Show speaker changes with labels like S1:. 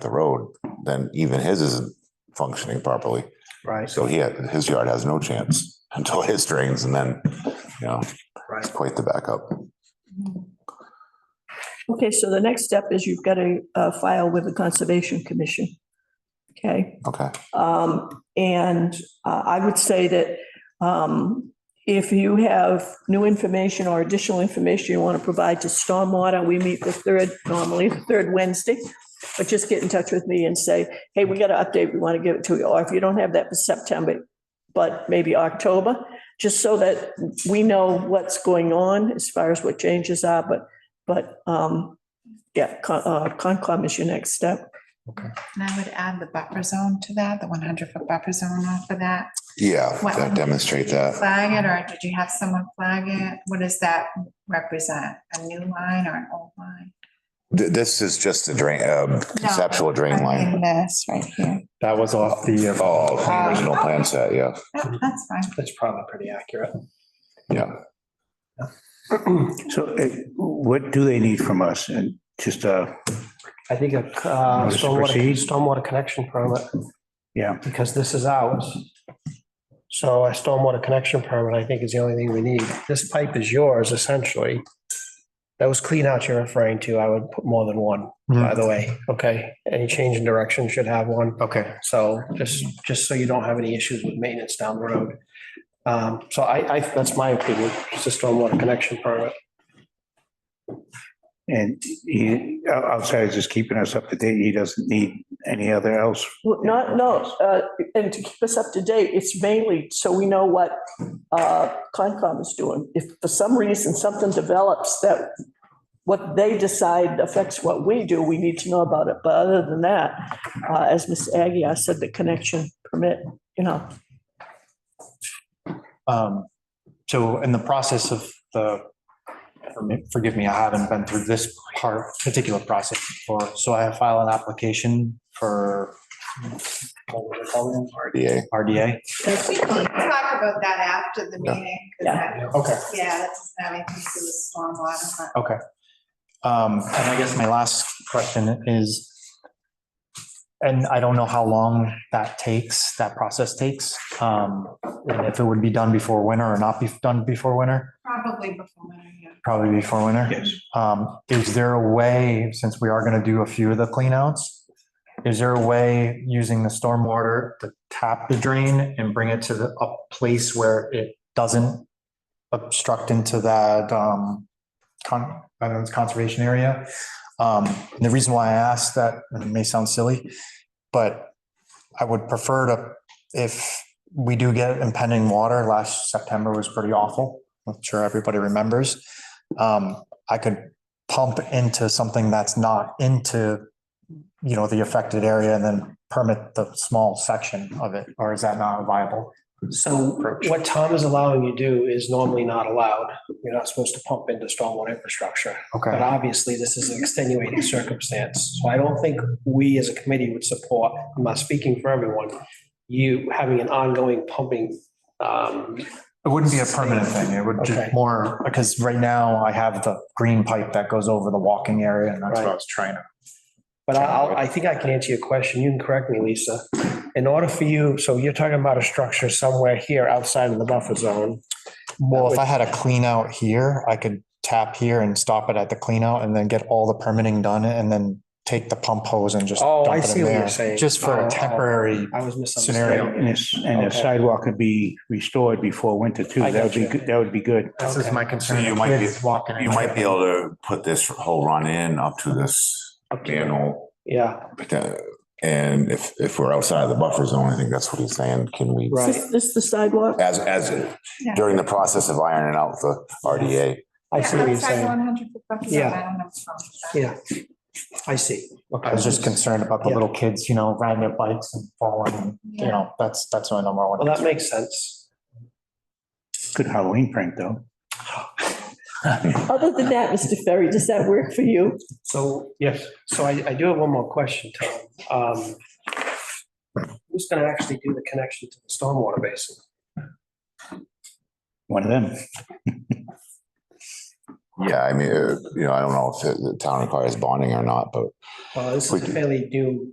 S1: the road, then even his isn't functioning properly.
S2: Right,
S1: So he, had- his yard has no chance until his drains and then, you know,
S2: right.
S1: it's quite the backup.
S3: Okay, so the next step is you've got to uh, file with the Conservation Commission. Okay?
S1: Okay,
S3: Um, and uh, I would say that, um, if you have new information or additional information you want to provide to stormwater, we meet the third, normally the third Wednesday. But just get in touch with me and say, hey, we got an update, we want to give it to you. Or if you don't have that for September, but maybe October, just so that we know what's going on as far as what changes are, but, but, um, yeah, Con- uh, Concom is your next step.
S4: And I would add the buffer zone to that, the one hundred foot buffer zone off of that.
S1: yeah,
S4: What-
S1: that demonstrate that.
S4: Flag it, or did you have someone flag it? What does that represent? A new line or an old line?
S1: Th- This is just a drain, um, conceptual drain
S4: I'm in
S1: line.
S4: This right here.
S2: That was off the, uh,
S1: Oh, the original plan set, yeah,
S2: Hmm.
S4: Oh, That's fine.
S2: that's probably pretty accurate.
S1: yeah.
S5: So eh, what do they need from us? And just, uh,
S2: I think a uh,
S5: Notice to
S2: stormwater,
S5: proceed.
S2: stormwater connection permit,
S5: yeah,
S2: because this is ours. So a stormwater connection permit, I think, is the only thing we need. This pipe is yours essentially. Those cleanouts you're referring to, I would put more than one, by
S5: Mm-hmm.
S2: the way, okay? Any change in direction should have one.
S5: okay.
S2: So just, just so you don't have any issues with maintenance down the road. Um, So I, I, that's my opinion, just a stormwater connection permit.
S5: And he, o- outside is just keeping us up to date. He doesn't need any other else.
S3: Well, Not, no, uh, and to keep us up to date, it's mainly so we know what uh, Concom is doing. If for some reason something develops that what they decide affects what we do, we need to know about it. But other than that, uh, as Ms. Aggie, I said the connection permit, you know,
S6: Um, so in the process of the, forgive me, I haven't been through this part, particular process before. So I filed an application for
S1: Yeah,
S6: RDA.
S4: We can talk about that after the
S1: Yeah.
S4: meeting. 'cause
S3: Yeah.
S4: that-
S6: Okay.
S4: Yeah, that doesn't have anything to do with stormwater, but.
S6: Um, and I guess my last question is, and I don't know how long that takes, that process takes. Um, and if it would be done before winter or not be done before winter,
S4: Probably before winter, yeah.
S6: probably before winter.
S5: Yes.
S6: Um, is there a way, since we are gonna do a few of the cleanouts, is there a way using the stormwater to tap the drain and bring it to the, a place where it doesn't obstruct into that, um, con, I don't know, it's conservation area? Um, and the reason why I asked that, and it may sound silly, but I would prefer to, if we do get impending water, last September was pretty awful. I'm sure everybody remembers. Um, I could pump into something that's not into, you know, the affected area and then permit the small section of it, or is that not viable?
S2: So what Tom is allowing you to do is normally not allowed. You're not supposed to pump into stormwater infrastructure. But
S6: Okay,
S2: obviously, this is an extenuating circumstance. So I don't think we as a committee would support, I'm not speaking for everyone, you having an ongoing pumping. um,
S6: it wouldn't be a permanent thing, it would
S2: Okay.
S6: just more, because right now I have the green pipe that goes over the walking area and that's what I was trying to.
S2: But I, I'll- I think I can answer your question. You can correct me, Lisa. In order for you, so you're talking about a structure somewhere here outside of the buffer zone.
S6: Well, if I had a clean out here, I could tap here and stop it at the clean out and then get all the permitting done and then take the pump hose and just.
S2: Oh, I
S6: dump it in
S2: see what you're
S6: there,
S2: saying.
S6: Just for
S2: Oh, oh.
S6: a temporary,
S2: I was
S6: Scenario.
S2: misunderstanding.
S5: And this, and the
S2: Okay.
S5: sidewalk could be restored before winter too.
S2: I
S5: That would be,
S2: gotcha.
S5: good. that would be good.
S6: this is
S2: Okay.
S6: my concern.
S1: So you might be-
S6: Kids walking in.
S1: You might be able to put this whole run in up to this manhole.
S2: Yeah,
S1: But, uh, And if, if we're outside of the buffer zone, I think that's what he's saying, can we,
S2: Right.
S3: is this- this the sidewalk?
S1: as, as, during the process of ironing out the RDA.
S2: I see what you're
S4: Outside
S2: saying.
S4: 100 foot buffer zone,
S2: Yeah.
S4: I don't have a problem with that.
S2: Yeah, I see.
S6: I was just concerned about the
S2: Yeah.
S6: little kids, you know, riding their bikes and falling, you
S4: Yeah.
S6: know, that's, that's my number
S2: Well,
S6: one.
S2: that makes sense.
S5: Good Halloween prank though.
S3: Other than that, Mr. Ferry, does that work for you?
S2: So, yes, so I, I do have one more question, Tom. Um, Who's going to actually do the connection to the stormwater basin?
S5: One of them.
S1: Yeah, I mean, uh, you know, I don't know if the- the town requires bonding or not, but
S2: Well, this is a fairly new